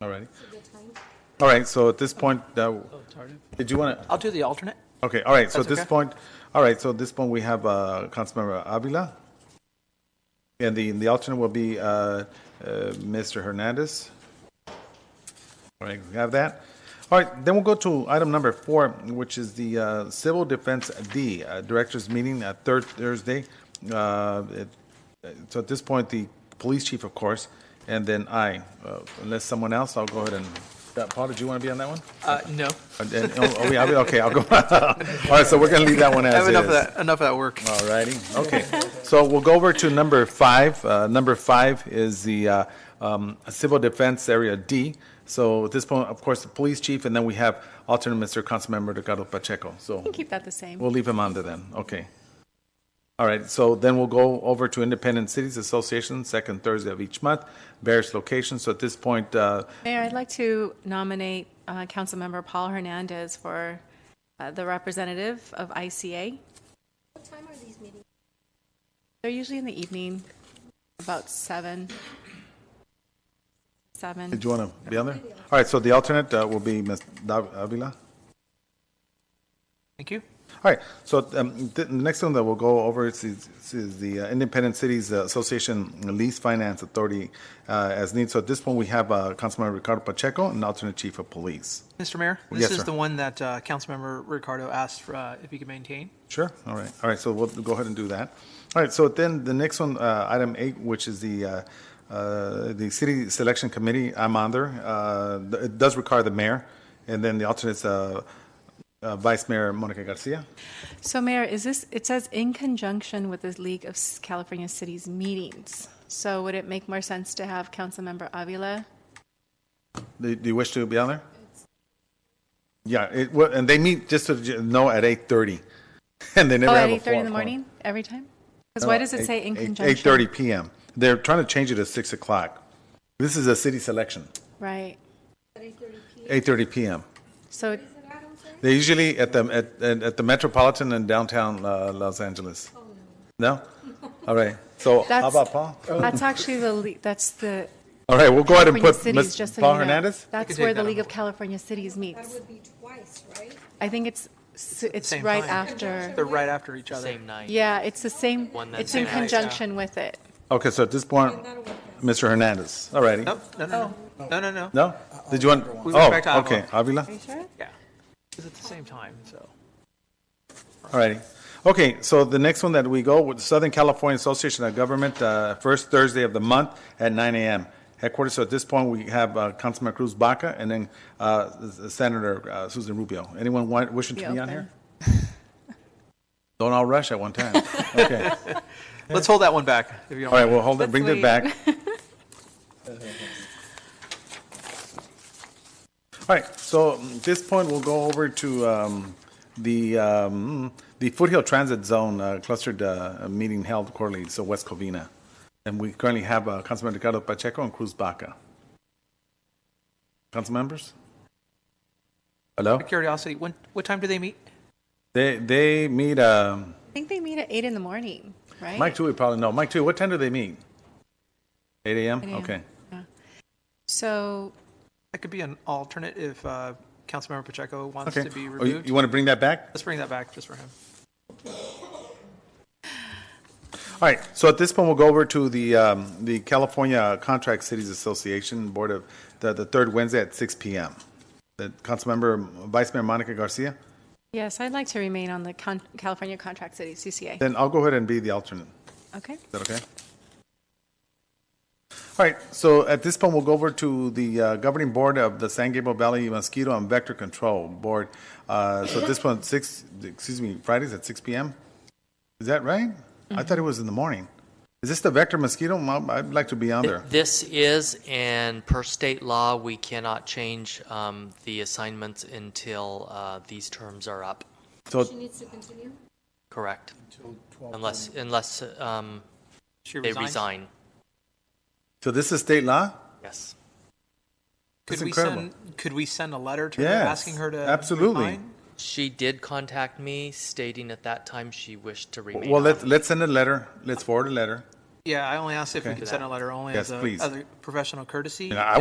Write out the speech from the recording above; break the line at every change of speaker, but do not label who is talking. All right. All right, so at this point, uh, did you want to,
I'll do the alternate.
okay, all right, so at this
That's okay.
point, all right, so at this point, we have uh, Councilmember Avila. And the, the alternate will be uh, uh, Mr. Hernandez. All right, we have that. All right, then we'll go to item number four, which is the uh, Civil Defense D, uh, Directors Meeting at third Thursday. Uh, it- So at this point, the police chief, of course, and then I. Uh, Unless someone else, I'll go ahead and, uh, Paul, did you want to be on that one?
Uh, no.
And- and- oh, are we- are we- Okay, I'll go. All right, so we're going to leave that one
I
as
have
is.
enough of that, enough of that work.
All righty, okay. So we'll go over to number five. Uh, Number five is the uh, um, Civil Defense Area D. So at this point, of course, the police chief, and then we have alternate Mr. Councilmember Ricardo Pacheco. So
can keep that the same.
we'll leave him on to then, okay. All right, so then we'll go over to Independent Cities Association, second Thursday of each month, various locations. So at this point, uh,
Mayor, I'd like to nominate uh, Councilmember Paul Hernandez for uh, the representative of ICA.
What time are these meetings?
They're usually in the evening, about seven. Seven.
did you want to be on there? All right, so the alternate uh, will be Ms. Dav- Avila.
Thank you.
All right, so um, the the next one that we'll go over is, is- is the uh, Independent Cities Association Lease Finance Authority uh, as needed. So at this point, we have uh, Councilman Ricardo Pacheco and alternate chief of police.
Mr. Mayor, this
Yes,
is
sir.
the one that uh, Councilmember Ricardo asked for, uh, if he could maintain.
Sure, all right, all right, so we'll go ahead and do that. All right, so then the next one, uh, item eight, which is the, uh, uh, the City Selection Committee, I'm on there. Uh, th- It does require the mayor, and then the alternate's uh, uh, Vice Mayor Monica Garcia.
So Mayor, is this, it says in conjunction with the League of S- California Cities meetings. So would it make more sense to have Councilmember Avila?
Do do you wish to be on there? Yeah, it, well, and they meet, just to j- know, at 8:30. And they never
Oh,
have a
at 8:30 in
forum-
the morning,
forum.
every time? Because why does it
Eight-
say in
eight-
conjunction?
8:30 PM. They're trying to change it to 6 o'clock. This is a city selection,
Right,
8:30 PM.
so,
They're usually at the, at- at at the Metropolitan in downtown uh, Los Angeles. No? All right, so how
That's-
about Paul?
that's actually the, le- that's the
All right, we'll Oh. go ahead and
California
put
Cities,
Ms.
just so you
Paul
know.
Hernandez?
could
That's
take
where the
that
League
on
of California Cities
That
meets.
would be twice, right?
I think it's, s- it's
Same
right
time.
after.
They're right after each other.
Same night.
Yeah, it's the same,
One that
it's in
same night, yeah.
conjunction with it.
Okay, so at this point,
And that'll work out.
Mr. Hernandez, all righty.
Nope, no, no, no, no, no, no.
No? Did you want,
We went back to
oh, okay, Avila?
sure?
Yeah. It's at the same time, so.
All righty. Okay, so the next one that we go with Southern California Association of Government, uh, first Thursday of the month at 9 a.m. Headquarters, so at this point, we have uh, Councilman Cruz Baca and then uh, Senator uh, Susan Rubio. Anyone want- wishing to
Be
be on
open.
here? Don't all rush at one time. Okay.
Let's hold that one back, if you don't.
All right, we'll hold it,
Let's
bring it
wait.
back. All right, so mm, at this point, we'll go over to um, the, um, the Foothill Transit Zone uh, clustered uh, meeting held quarterly, so West Covina. And we currently have uh, Councilman Ricardo Pacheco and Cruz Baca. Council members? Hello?
Out of Curiosity, when, what time do they meet?
They, they meet, um,
I think they meet at eight in the morning, right?
Mike Tui probably, no, Mike Tui, what time do they meet? 8 a.m.?
8 a.m.
Okay.
So,
That could be an alternate if uh, Councilmember Pacheco wants
Okay.
to be
Oh, you-
removed.
You want to bring that back?
Let's bring that back just for him.
All right, so at this point, we'll go over to the, um, the California Contract Cities Association Board of, the, the third Wednesday at six PM. The Councilmember, Vice Mayor Monica Garcia,
yes, I'd like to remain on the Con- California Contract City, CCA.
then I'll go ahead and be the alternate.
Okay?
Is that okay? All right, so at this point, we'll go over to the uh, governing board of the San Gabriel Valley Mosquito and Vector Control Board. Uh, So at this point, six, excuse me, Fridays at six PM? Is that right? I thought it was in the morning. Is this the vector mosquito? Mom, I'd like to be on there.
This is, and per state law, we cannot change um, the assignments until uh, these terms are up.
So
She needs to continue?
Correct. Unless, unless um,
She
they
resigns.
resign.
So this is state law?
Yes.
Could
That's
we
incredible.
send, could we send a letter to her
Yes,
asking her to?
absolutely.
resign?
She did contact me stating at that time she wished to remain.
Well,
on.
let's, let's send a letter, let's forward a letter.
Yeah, I only asked if we
Okay.
could send a letter only
Yes,
as a,
please.
as a professional courtesy.
And I